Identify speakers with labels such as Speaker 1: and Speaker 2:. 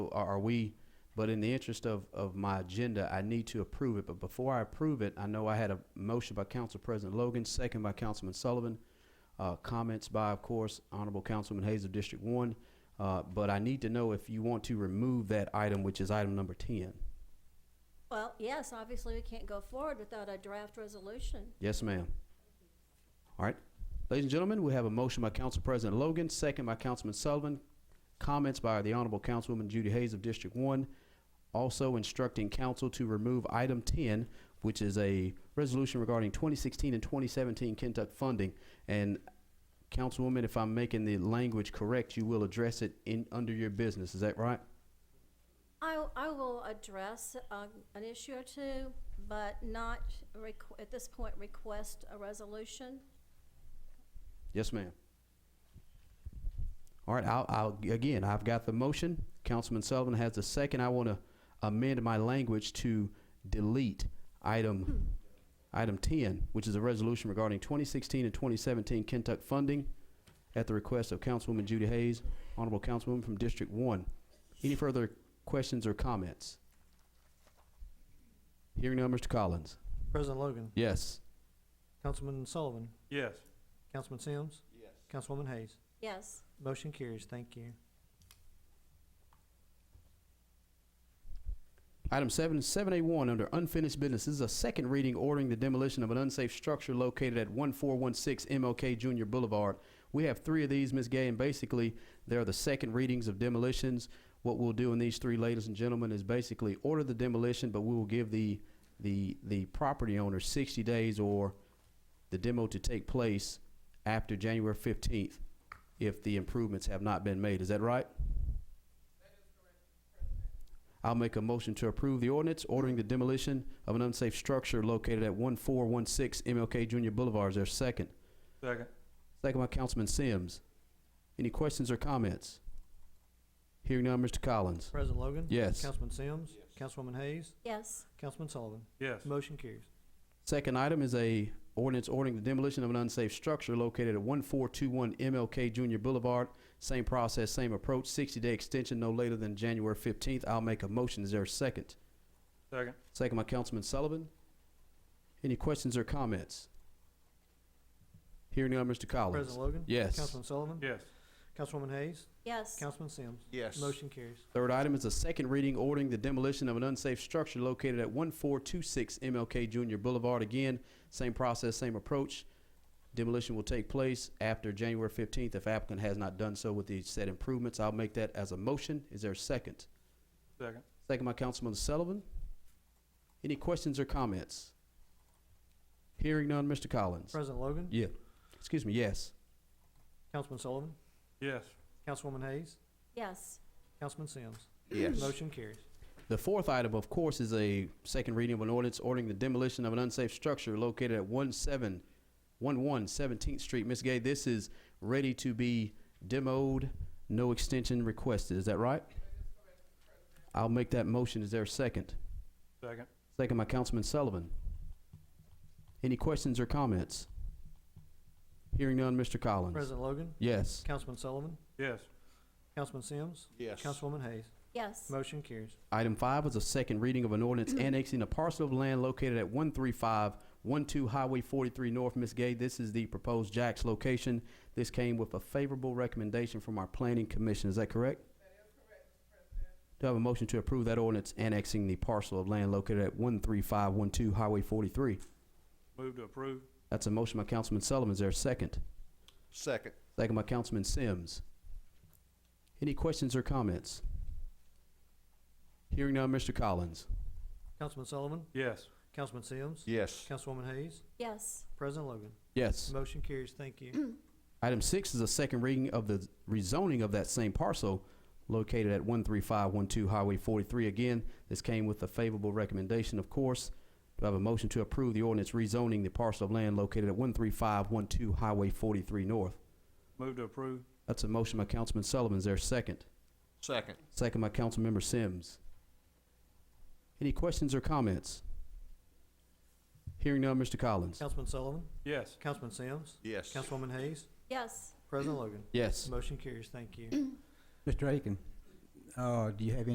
Speaker 1: are, are we? But in the interest of, of my agenda, I need to approve it. But before I approve it, I know I had a motion by Council President Logan, second by Councilman Sullivan. Uh, comments by, of course, Honorable Councilman Hayes of District One. Uh, but I need to know if you want to remove that item, which is item number ten.
Speaker 2: Well, yes, obviously we can't go forward without a draft resolution.
Speaker 1: Yes, ma'am. All right. Ladies and gentlemen, we have a motion by Council President Logan, second by Councilman Sullivan. Comments by the Honorable Councilwoman Judy Hayes of District One, also instructing council to remove item ten, which is a resolution regarding twenty sixteen and twenty seventeen Kentuck funding. And Councilwoman, if I'm making the language correct, you will address it in, under your business. Is that right?
Speaker 2: I, I will address uh, an issue or two, but not requ- at this point request a resolution.
Speaker 1: Yes, ma'am. All right, I'll, I'll, again, I've got the motion. Councilman Sullivan has the second. I want to amend my language to delete item, item ten, which is a resolution regarding twenty sixteen and twenty seventeen Kentuck funding at the request of Councilwoman Judy Hayes, Honorable Councilwoman from District One. Any further questions or comments? Hearing now, Mr. Collins.
Speaker 3: President Logan,
Speaker 1: Yes.
Speaker 3: Councilman Sullivan,
Speaker 4: Yes.
Speaker 3: Councilman Sims,
Speaker 4: Yes.
Speaker 3: Councilwoman Hayes.
Speaker 2: Yes,
Speaker 3: Motion carries. Thank you.
Speaker 1: Item seven, seven A one, under unfinished business, this is a second reading ordering the demolition of an unsafe structure located at one four one six MLK Junior Boulevard. We have three of these, Ms. Gay, and basically, they're the second readings of demolitions. What we'll do in these three, ladies and gentlemen, is basically order the demolition, but we will give the, the, the property owner sixty days or the demo to take place after January fifteenth if the improvements have not been made. Is that right? I'll make a motion to approve the ordinance ordering the demolition of an unsafe structure located at one four one six MLK Junior Boulevard. Is there a second?
Speaker 4: Second.
Speaker 1: Second by Councilman Sims. Any questions or comments? Hearing none, Mr. Collins.
Speaker 3: President Logan.
Speaker 1: Yes.
Speaker 3: Councilman Sims, Councilwoman Hayes,
Speaker 2: yes,
Speaker 3: Councilman Sullivan.
Speaker 4: Yes.
Speaker 3: Motion carries.
Speaker 1: Second item is a ordinance ordering the demolition of an unsafe structure located at one four two one MLK Junior Boulevard. Same process, same approach, sixty day extension no later than January fifteenth. I'll make a motion. Is there a second?
Speaker 4: Second.
Speaker 1: Second by Councilman Sullivan. Any questions or comments? Hearing none, Mr. Collins.
Speaker 3: President Logan.
Speaker 1: Yes.
Speaker 3: Councilman Sullivan.
Speaker 4: Yes.
Speaker 3: Councilwoman Hayes,
Speaker 2: yes,
Speaker 3: Councilman Sims.
Speaker 4: Yes.
Speaker 3: Motion carries.
Speaker 1: Third item is a second reading ordering the demolition of an unsafe structure located at one four two six MLK Junior Boulevard. Again, same process, same approach. Demolition will take place after January fifteenth if applicant has not done so with the said improvements. I'll make that as a motion. Is there a second?
Speaker 4: Second.
Speaker 1: Second by Councilman Sullivan. Any questions or comments? Hearing none, Mr. Collins.
Speaker 3: President Logan.
Speaker 1: Yeah. Excuse me, yes.
Speaker 3: Councilman Sullivan,
Speaker 4: Yes.
Speaker 3: Councilwoman Hayes,
Speaker 2: yes,
Speaker 3: Councilman Sims.
Speaker 4: Yes.
Speaker 3: Motion carries.
Speaker 1: The fourth item, of course, is a second reading of an ordinance ordering the demolition of an unsafe structure located at one seven, one one Seventeenth Street. Ms. Gay, this is ready to be demoed, no extension requested. Is that right? I'll make that motion. Is there a second?
Speaker 4: Second.
Speaker 1: Second by Councilman Sullivan. Any questions or comments? Hearing none, Mr. Collins.
Speaker 3: President Logan,
Speaker 1: Yes.
Speaker 3: Councilman Sullivan,
Speaker 4: Yes.
Speaker 3: Councilman Sims,
Speaker 4: Yes.
Speaker 3: Councilwoman Hayes.
Speaker 2: yes,
Speaker 3: Motion carries.
Speaker 1: Item five is a second reading of an ordinance annexing a parcel of land located at one three five one two Highway forty-three North, Miss Gay. This is the proposed Jack's location. This came with a favorable recommendation from our planning commission. Is that correct? That is correct, President. Do I have a motion to approve that ordinance annexing the parcel of land located at one three five one two Highway forty-three?
Speaker 4: Move to approve.
Speaker 1: That's a motion by Councilman Sullivan. Is there a second?
Speaker 4: Second.
Speaker 1: Second by Councilman Sims. Any questions or comments? Hearing none, Mr. Collins.
Speaker 3: Councilman Sullivan,
Speaker 4: Yes.
Speaker 3: Councilman Sims,
Speaker 4: Yes.
Speaker 3: Councilwoman Hayes,
Speaker 2: yes,
Speaker 3: President Logan.
Speaker 1: Yes.
Speaker 3: Motion carries. Thank you.
Speaker 1: Item six is a second reading of the rezoning of that same parcel located at one three five one two Highway forty-three. Again, this came with a favorable recommendation, of course. Do I have a motion to approve the ordinance rezoning the parcel of land located at one three five one two Highway forty-three North?
Speaker 4: Move to approve.
Speaker 1: That's a motion by Councilman Sullivan. Is there a second?
Speaker 4: Second.
Speaker 1: Second by Councilmember Sims. Any questions or comments? Hearing none, Mr. Collins.
Speaker 3: Councilman Sullivan,
Speaker 4: Yes.
Speaker 3: Councilman Sims,
Speaker 4: Yes.
Speaker 3: Councilwoman Hayes,
Speaker 2: yes.
Speaker 3: President Logan.
Speaker 1: Yes.
Speaker 3: Motion carries. Thank you.
Speaker 5: Mr. Aiken, uh, do you have any